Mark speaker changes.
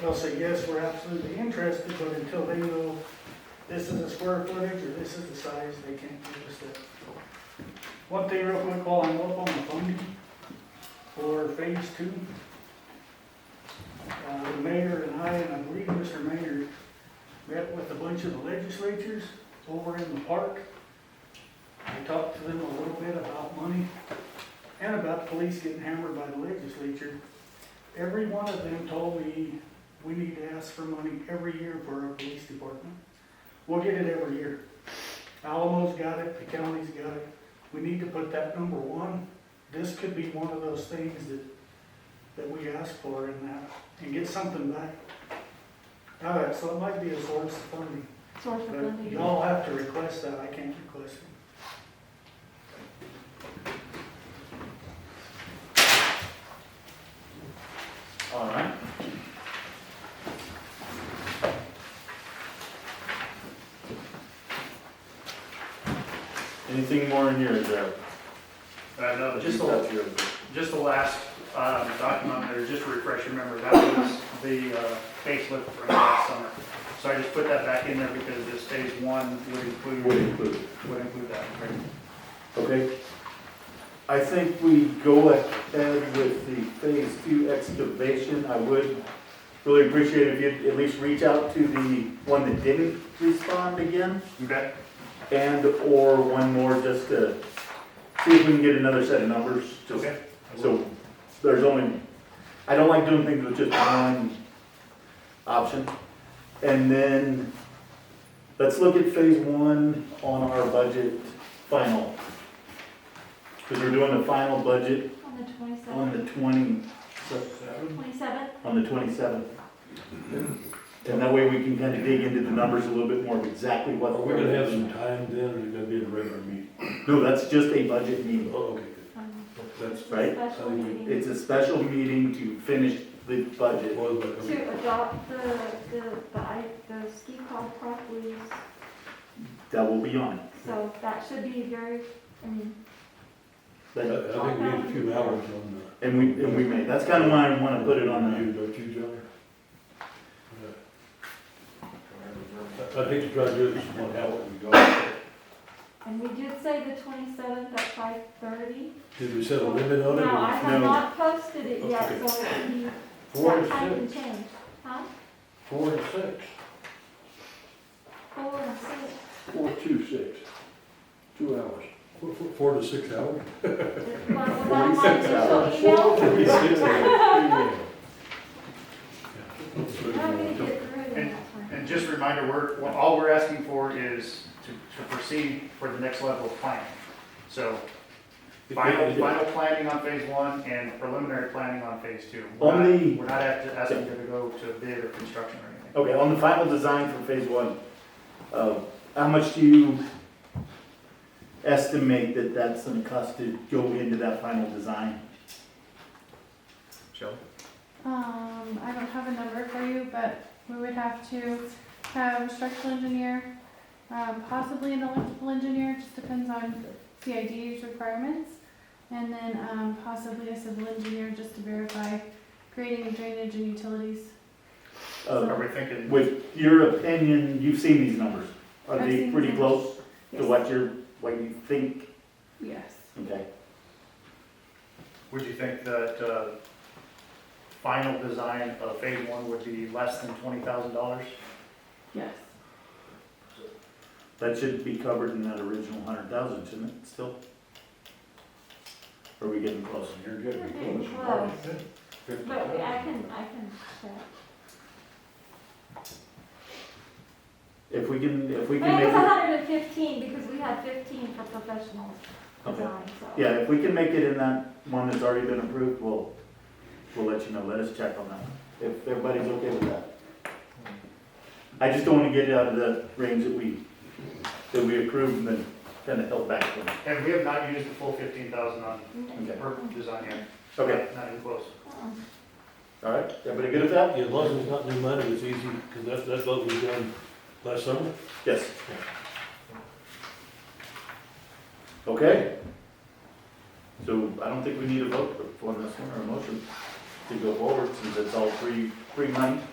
Speaker 1: they'll say, yes, we're absolutely interested, but until they know this is the square footage or this is the size, they can't give us that. One thing real quick, while I'm up on the funding for phase two. Uh, the mayor and I, and I believe Mr. Mayor, met with a bunch of the legislatures over in the park. I talked to them a little bit about money and about police getting hammered by the legislature. Every one of them told me, we need to ask for money every year for our police department. We'll get it every year. Alamo's got it, the county's got it. We need to put that number one. This could be one of those things that, that we ask for and that, and get something back. All right, so it might be a source of funding,
Speaker 2: Source of
Speaker 1: but
Speaker 2: funding.
Speaker 1: y'all have to request that, I can't request it.
Speaker 3: All right. Anything more in here, Jeff?
Speaker 4: I know,
Speaker 3: You've
Speaker 4: just the,
Speaker 3: got your-
Speaker 4: just the last um, document there, just to refresh your memory, that was the uh, facelift from last summer. So I just put that back in there because this phase one would include,
Speaker 3: Would
Speaker 4: would
Speaker 3: include.
Speaker 4: include that.
Speaker 3: Okay. I think we go ahead with the phase two excavation. I would really appreciate if you'd at least reach out to the one that didn't respond again.
Speaker 4: Okay.
Speaker 3: And/or one more just to see if we can get another set of numbers. just-
Speaker 4: Okay.
Speaker 3: So there's only, I don't like doing things with just one option. And then, let's look at phase one on our budget final. Because we're doing the final budget
Speaker 2: On the
Speaker 3: on the
Speaker 2: twenty-seventh,
Speaker 3: twenty,
Speaker 2: twenty-seventh,
Speaker 3: on the twenty-seventh. And that way we can kind of dig into the numbers a little bit more of exactly what.
Speaker 5: Are we gonna have some time then, or is it gonna be in a regular meeting?
Speaker 3: No, that's just a budget meeting.
Speaker 5: Oh, okay,
Speaker 2: um,
Speaker 5: good. that's,
Speaker 3: Right?
Speaker 2: special
Speaker 5: So we-
Speaker 2: meeting
Speaker 3: It's a special meeting to finish the budget.
Speaker 5: well, but, okay.
Speaker 2: to adopt the, the, the, I- the ski club properties.
Speaker 3: That will be on.
Speaker 2: So that should be very, I mean,
Speaker 5: I
Speaker 3: But-
Speaker 5: I think we need a few hours on the.
Speaker 3: And we, and we may, that's kind of why I want to put it on the
Speaker 5: You, don't you, John? Yeah. I I think to try to do this one, how what we got,
Speaker 2: and we did say the twenty-seventh at five thirty.
Speaker 5: did we set a limit on it?
Speaker 2: No, I
Speaker 3: No.
Speaker 2: have not posted it yet,
Speaker 5: Okay.
Speaker 2: so it can be,
Speaker 5: Four to
Speaker 2: that can
Speaker 5: six,
Speaker 2: change. Huh?
Speaker 5: four to six,
Speaker 2: Four and six,
Speaker 6: Four, two, six. Two hours.
Speaker 5: Four- four- four to six hours?
Speaker 2: well, without my
Speaker 3: Forty-six hours.
Speaker 2: initial email, I'm gonna
Speaker 5: Yeah.
Speaker 2: get through it in that time.
Speaker 4: And just a reminder, we're, well, all we're asking for is to, to proceed for the next level of planning. So final, final planning on phase one and preliminary planning on phase two. We're not-
Speaker 3: Only-
Speaker 4: We're not act- asking you to go to bid or construction or anything.
Speaker 3: Okay, on the final design for phase one, uh, how much do you estimate that that's gonna cost to go into that final design?
Speaker 4: Shelley?
Speaker 7: Um, I don't have a number for you, but we would have to have a structural engineer, um, possibly an electrical engineer, just depends on CID's requirements. And then, um, possibly a civil engineer just to verify grading and drainage and utilities.
Speaker 3: Uh,
Speaker 4: Are we thinking
Speaker 3: With your opinion, you've seen these numbers, are
Speaker 7: I've
Speaker 3: they
Speaker 7: seen
Speaker 3: pretty
Speaker 7: them.
Speaker 3: close to
Speaker 7: Yes.
Speaker 3: what you're, what you think?
Speaker 7: Yes.
Speaker 3: Okay,
Speaker 4: Would you think that uh, final design of phase one would be less than twenty thousand dollars?
Speaker 7: Yes.
Speaker 3: that should be covered in that original hundred thousand, shouldn't it, still? Are we getting close?
Speaker 6: You're getting
Speaker 2: Okay,
Speaker 6: close.
Speaker 2: well,
Speaker 6: Fifty
Speaker 2: But
Speaker 6: thousand.
Speaker 2: I can, I can check.
Speaker 3: If we can, if we
Speaker 2: But
Speaker 3: can
Speaker 2: it
Speaker 3: make
Speaker 2: was
Speaker 3: it,
Speaker 2: hundred and fifteen, because we had fifteen for professional
Speaker 3: okay.
Speaker 2: design, so.
Speaker 3: Yeah, if we can make it in that one that's already been approved, we'll, we'll let you know, let us check on that, if everybody's okay with that. I just don't wanna get out of the range that we, that we approved and then kinda held back from.
Speaker 4: And we have not used the full fifteen thousand on
Speaker 2: Mm,
Speaker 3: Okay,
Speaker 4: per design yet.
Speaker 3: okay,
Speaker 4: Not even close.
Speaker 2: uh-uh.
Speaker 3: all right, everybody good with that?
Speaker 5: Yeah, as long as it's not new money, it's easy, because that's, that's what we done last summer.
Speaker 3: Yes. Okay. So I don't think we need a vote on this one or a motion to go forward since it's all free, free money.